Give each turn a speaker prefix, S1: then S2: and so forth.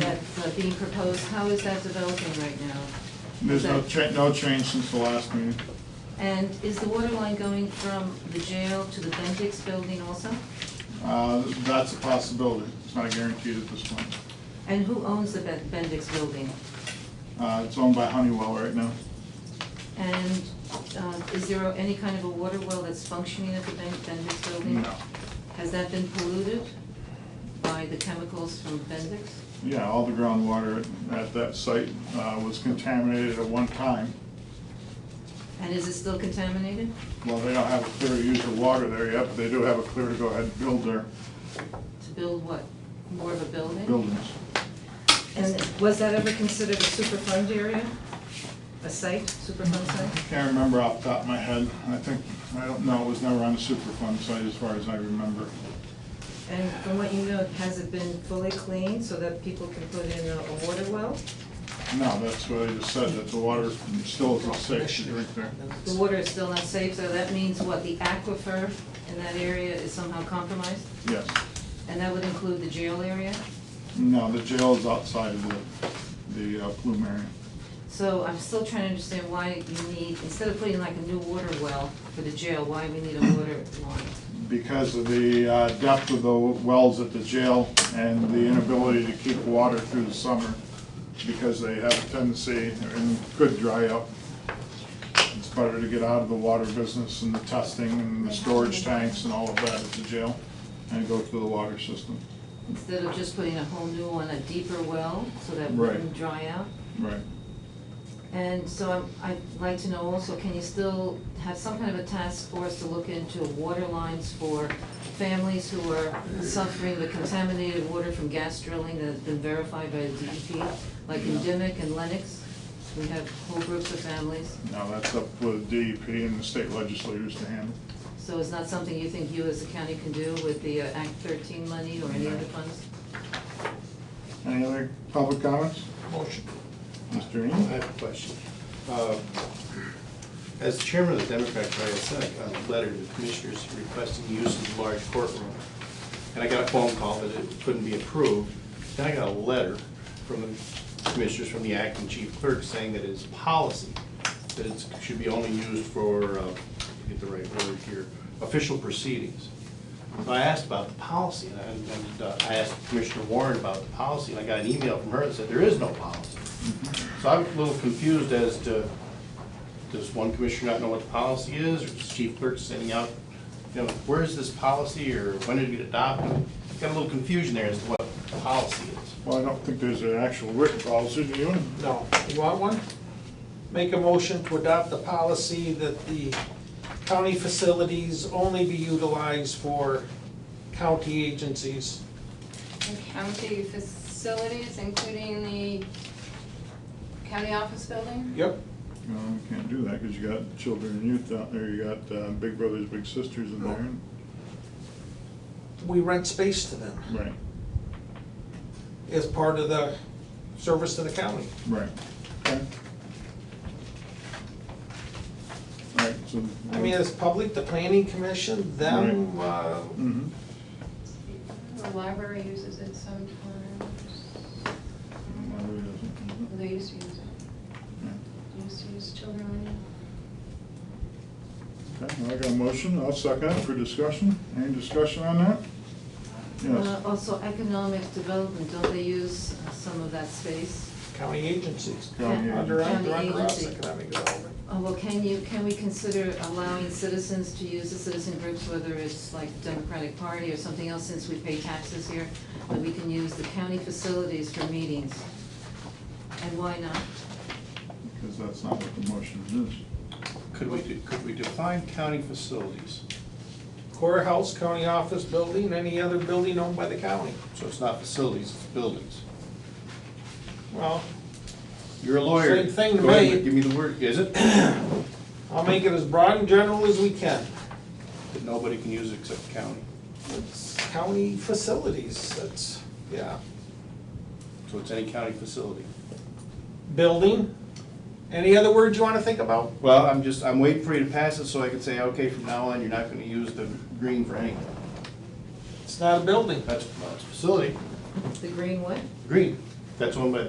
S1: that's uh, being proposed, how is that developing right now?
S2: There's no
S1: Is that-
S2: cha, no change since the last meeting.
S1: And is the water line going from the jail to the Bendix building also?
S2: Uh, that's a possibility, it's not guaranteed at this point.
S1: And who owns the Ben- Bendix building?
S2: Uh, it's owned by Honeywell right now.
S1: And uh, is there any kind of a water well that's functioning at the Ben- Bendix building?
S2: No.
S1: Has that been polluted by the chemicals from Bendix?
S2: Yeah, all the groundwater at that site, uh, was contaminated at one time.
S1: And is it still contaminated?
S2: Well, they don't have a clear to use of water there yet, but they do have a clear to go ahead and build their
S1: To build what? More of a building?
S2: buildings.
S3: And was that ever considered a superfund area? A site, superfund
S2: I
S3: site?
S2: Can't remember off the top of my head, I think, I don't know, it was never on a Superfund site as far as I remember.
S3: And from what you know, has it been fully cleaned so that people can put in a a water well?
S2: No, that's what I just said, that the water still isn't safe to drink there.
S1: The water is still not safe, so that means what, the aquifer in that area is somehow compromised?
S2: Yes.
S1: And that would include the jail area?
S2: No, the jail is outside of the, the uh, plume area.
S1: So I'm still trying to understand why you need, instead of putting like a new water well for the jail, why we need a water line?
S2: Because of the uh, depth of the wells at the jail and the inability to keep water through the summer, because they have a tendency, and could dry up. It's better to get out of the water business and the testing and the storage tanks and all of that at the jail, and go through the water system.
S1: Instead of just putting a whole new one, a deeper well, so that it
S2: Right.
S1: wouldn't dry out?
S2: Right.
S1: And so I'm- I'd like to know also, can you still have some kind of a task force to look into water lines for families who are suffering the contaminated water from gas drilling that has been verified by the DEP? Like in Dimick and Lennox, we have whole groups of families.
S2: Now, that's up with DEP and the state legislators to handle.
S1: So it's not something you think you as a county can do with the uh, Act thirteen money or any other funds?
S2: Any other public comments?
S4: Motion.
S2: Mr.
S4: I
S2: Ennis?
S4: have a question. Uh, As chairman of the Democratic Party, I sent a letter to the commissioners requesting use of the large courtroom. And I got a phone call that it couldn't be approved. Then I got a letter from the commissioners, from the acting chief clerk, saying that it is policy, that it should be only used for, uh, get the right word here, official proceedings. So I asked about the policy, and I- and uh, I asked Commissioner Warren about the policy, and I got an email from her that said there is no policy. So I'm a little confused as to, does one commissioner not know what the policy is, or is chief clerk sending out, you know, where is this policy, or when did it get adopted? Got a little confusion there as to what the policy is.
S2: Well, I don't think there's an actual written policy, do you?
S5: No. You want one? Make a motion to adopt the policy that the county facilities only be utilized for county agencies.
S6: and county facilities, including the county office building?
S5: Yep.
S2: No, you can't do that, because you got children and youth out there, you got uh, big brothers, big sisters in there. and-
S5: We rent space to them
S2: Right,
S5: as part of the service to the county.
S2: right. Okay. All right, so.
S5: I mean, it's public, the planning commission, them, uh,
S2: Mhm.
S6: The library uses it sometimes.
S2: Well, it Mm-hmm. doesn't, mhm.
S6: They used to use it,
S2: Yeah.
S6: They used to use children.
S2: Okay, well, I got a motion, I'll second it for discussion. Any discussion on that?
S1: Uh,
S2: Yes,
S1: Also, economic development, don't they use uh, some of that space?
S5: county agencies.
S2: County
S1: Yeah.
S5: Under, under
S1: County
S5: under us,
S1: agency.
S5: economic development.
S1: Oh, well, can you, can we consider allowing citizens to use the citizen groups, whether it's like the Democratic Party or something else, since we pay taxes here, that we can use the county facilities for meetings? And why not?
S2: because that's not what the motion is.
S4: Could we, de- could we define county facilities,
S5: Courthouse, county office building, any other building owned by the county.
S4: so it's not facilities, it's buildings?
S5: Well,
S4: You're a lawyer.
S5: Same thing to
S4: Go ahead,
S5: me.
S4: Give me the word, is it?
S5: I'll make it as broad and general as we can.
S4: That nobody can use it except county,
S5: It's county facilities, that's, yeah.
S4: so it's any county facility.
S5: Building, any other words you wanna think about?
S4: Well, I'm just, I'm waiting for you to pass it so I can say, okay, from now on, you're not gonna use the green for anything.
S5: It's not a building.
S4: That's, well, it's a facility,
S1: The green what?
S4: green, That's owned by the